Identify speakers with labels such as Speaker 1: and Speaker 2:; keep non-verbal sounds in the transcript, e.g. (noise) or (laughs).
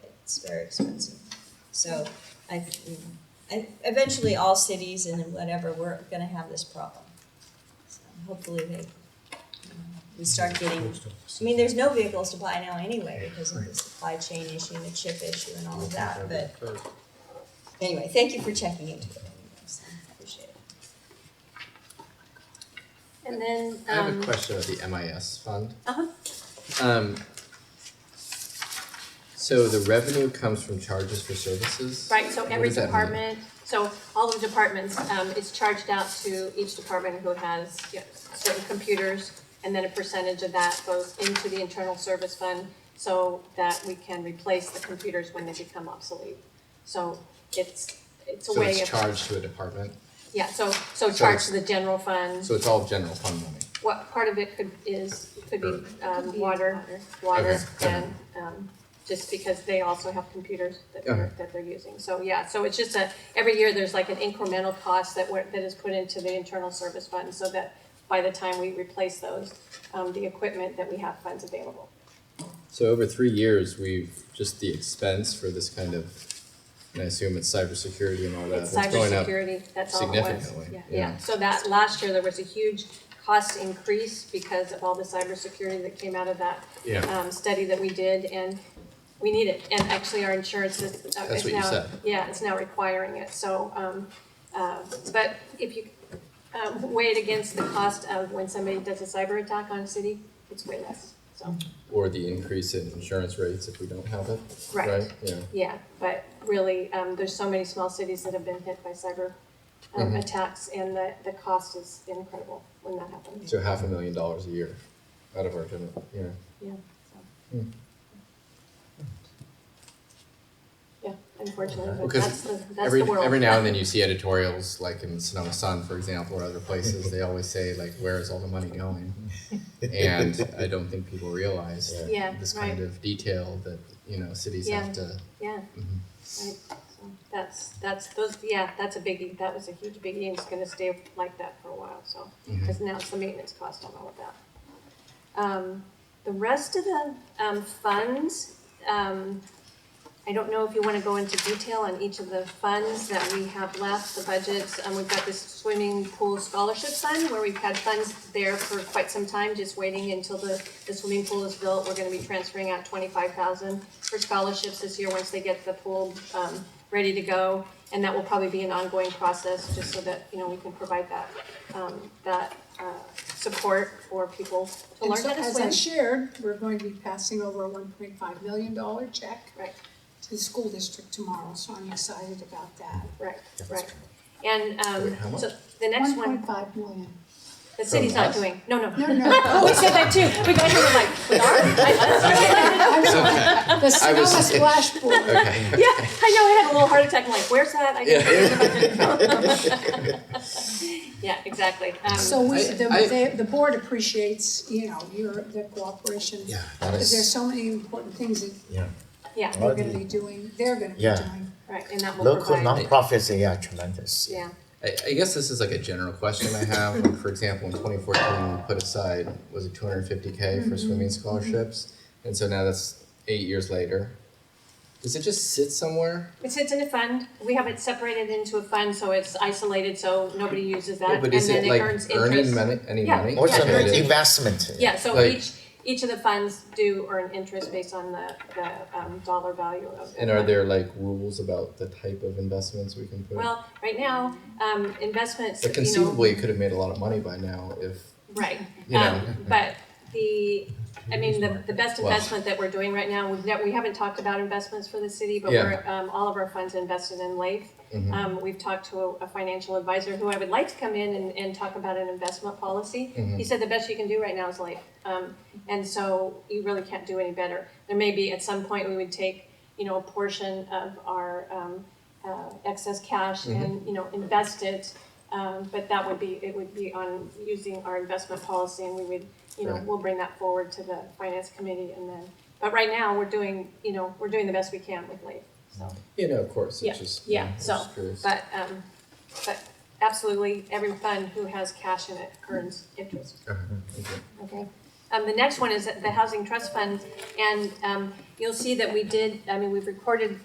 Speaker 1: it's very expensive. So I, you know, I, eventually all cities and then whatever, we're gonna have this problem. So Hopefully they, you know, we start getting, I mean, there's no vehicles to buy now anyway because of the supply chain issue and the chip issue and all of that, but anyway, thank you for checking into it. anyways. I Appreciate it.
Speaker 2: And then,
Speaker 3: I have a
Speaker 2: um,
Speaker 3: question about the MIS fund.
Speaker 2: Uh-huh.
Speaker 3: Um, so the revenue comes from charges for services?
Speaker 2: right, so
Speaker 3: What
Speaker 2: every
Speaker 3: does that mean?
Speaker 2: department, so all of the departments, um, is charged out to each department who has yeah, certain computers. And then a percentage of that goes into the internal service fund so that we can replace the computers when they become obsolete. So it's, it's a
Speaker 3: So
Speaker 2: way
Speaker 3: it's
Speaker 2: of,
Speaker 3: charged to a department,
Speaker 2: yeah, so, so
Speaker 3: So
Speaker 2: charge
Speaker 3: it's-
Speaker 2: to the general fund.
Speaker 3: so it's all general fund money.
Speaker 2: What part of it could is, could be, um,
Speaker 4: be
Speaker 2: water, water,
Speaker 3: Okay.
Speaker 2: and, um, just because they also have computers that they're,
Speaker 3: Okay.
Speaker 2: that they're using. So, yeah, so it's just a, every year, there's like an incremental cost that we that is put into the internal service fund, so that by the time we replace those, um, the equipment, that we have funds available.
Speaker 3: So over three years, we've, just the expense for this kind of, and I assume it's cybersecurity and all that,
Speaker 2: It's
Speaker 3: that's going up.
Speaker 2: cybersecurity, that's all it was.
Speaker 3: significantly,
Speaker 2: Yeah,
Speaker 3: yeah.
Speaker 2: yeah. So that, last year, there was a huge cost increase because of all the cybersecurity that came out of that
Speaker 3: Yeah,
Speaker 2: um, study that we did, and we need it, and actually our insurance is, uh,
Speaker 3: That's
Speaker 2: is
Speaker 3: what you
Speaker 2: now,
Speaker 3: said.
Speaker 2: yeah, it's now requiring it, so, um, uh, but if you, um, weigh it against the cost of when somebody does a cyber attack on a city, it's way less, so,
Speaker 3: or the increase in insurance rates if we don't have it,
Speaker 2: right,
Speaker 3: right? Yeah,
Speaker 2: yeah, but really, um, there's so many small cities that have been hit by cyber um,
Speaker 3: Mhm.
Speaker 2: attacks, and the, the cost is incredible when that happens.
Speaker 3: so half a million dollars a year out of our general, yeah.
Speaker 2: Yeah, so.
Speaker 3: Hmm.
Speaker 2: Yeah, unfortunately, but
Speaker 3: Because
Speaker 2: that's the, that's
Speaker 3: Every,
Speaker 2: the world.
Speaker 3: every now and then
Speaker 2: (laughs)
Speaker 3: you see editorials, like in Sonoma Sun, for example, or other places, they always say like, where is all the money going? And I don't think people realize
Speaker 2: Yeah,
Speaker 3: this
Speaker 2: right,
Speaker 3: kind of detail that, you know, cities have to.
Speaker 2: yeah, Mm-hmm.
Speaker 3: Mhm.
Speaker 2: right. So That's, that's, those, yeah, that's a biggie, that was a huge biggie, and it's gonna stay like that for a while, so.
Speaker 3: Mhm.
Speaker 2: because now it's the maintenance cost on all of that. Um, the rest of the, um, funds, um, I don't know if you wanna go into detail on each of the funds that we have left, the budgets, um, we've got this swimming pool scholarship fund where we've had funds there for quite some time, just waiting until the, the swimming pool is built, we're gonna be transferring out twenty-five thousand for scholarships this year, once they get the pool, um, ready to go. And that will probably be an ongoing process, just so that, you know, we can provide that, um, that, uh, support for people to
Speaker 4: And
Speaker 2: learn
Speaker 4: so
Speaker 2: how to
Speaker 4: as I
Speaker 2: swim.
Speaker 4: shared, we're going to be passing over a one point five million dollar check
Speaker 2: Right.
Speaker 4: to the school district tomorrow, so I'm excited about that.
Speaker 2: Right, right. And,
Speaker 3: Wait, how
Speaker 2: um,
Speaker 3: much?
Speaker 2: so the next one,
Speaker 4: One point five million.
Speaker 2: The city's
Speaker 3: From
Speaker 2: not
Speaker 3: us?
Speaker 2: doing, no, no.
Speaker 4: No, no.
Speaker 2: (laughs) Oh, we said that too. We got here, we're like, darn.
Speaker 4: I
Speaker 3: (laughs)
Speaker 4: know.
Speaker 3: Okay,
Speaker 4: The
Speaker 3: I
Speaker 4: Sonoma
Speaker 3: was-
Speaker 4: Splash Board,
Speaker 3: okay.
Speaker 2: Yeah, I know, I had a little heart attack. I'm like, where's that? I didn't think about it. (laughs) Yeah, exactly. Um,
Speaker 4: so we, the,
Speaker 3: I- I-
Speaker 4: the, the board appreciates, you know, your, the cooperation.
Speaker 3: Yeah, that
Speaker 4: Because there's
Speaker 3: is,
Speaker 4: so many important things that
Speaker 5: Yeah,
Speaker 2: yeah,
Speaker 4: we're gonna be doing, they're gonna be
Speaker 5: Yeah.
Speaker 4: doing.
Speaker 2: right, and that will
Speaker 5: local
Speaker 2: provide,
Speaker 5: nonprofits, they are tremendous.
Speaker 2: yeah,
Speaker 3: I, I guess this is like a general question I have, like, for example, in twenty fourteen, we put aside, was it two hundred and fifty K
Speaker 2: Mm-hmm.
Speaker 3: for swimming scholarships? And so now that's eight years later. Does it just sit somewhere?
Speaker 2: it sits in a fund. We have it separated into a fund, so it's isolated, so nobody uses
Speaker 3: Yeah,
Speaker 2: that, and
Speaker 3: But is
Speaker 2: then
Speaker 3: it
Speaker 2: it
Speaker 3: like
Speaker 2: earns interest.
Speaker 3: earning money, any
Speaker 2: Yeah,
Speaker 3: money?
Speaker 5: Or it's
Speaker 2: Yeah,
Speaker 5: an
Speaker 2: they're
Speaker 3: generated?
Speaker 5: investment.
Speaker 2: Yeah, so
Speaker 3: Like-
Speaker 2: each, each of the funds do earn interest based on the, the, um, dollar value of. the
Speaker 3: And are
Speaker 2: fund.
Speaker 3: there like rules about the type of investments we can put?
Speaker 2: Well, right now, um, investments,
Speaker 3: But
Speaker 2: you know,
Speaker 3: conceivably, you could have made a lot of money by now if,
Speaker 2: right,
Speaker 3: you know.
Speaker 2: um, but the, I mean, the, the best
Speaker 3: Well-
Speaker 2: investment that we're doing right now, we've never, we haven't talked about investments for the city, but
Speaker 3: Yeah.
Speaker 2: we're, um, all of our funds invested in Life.
Speaker 3: Mhm.
Speaker 2: Um, we've talked to a, a financial advisor who I would like to come in and, and talk about an investment policy. He said the best you can do right now is life. Um, and so you really can't do any better. There may be, at some point, we would take, you know, a portion of our, um, uh, excess cash and, you know, invest it. Um, but that would be, it would be on using our investment policy and we would, you know,
Speaker 3: Right.
Speaker 2: we'll bring that forward to the finance committee and then, but right now, we're doing, you know, we're doing the best we can with life, so.
Speaker 3: you know, of course,
Speaker 2: Yeah,
Speaker 3: it's just.
Speaker 2: yeah,
Speaker 3: I'm
Speaker 2: so,
Speaker 3: just curious.
Speaker 2: But, um, but absolutely, every fund who has cash in it earns interest,
Speaker 3: Okay, okay.
Speaker 2: okay? Um, the next one is the Housing Trust Fund, and, um, you'll see that we did, I mean, we've recorded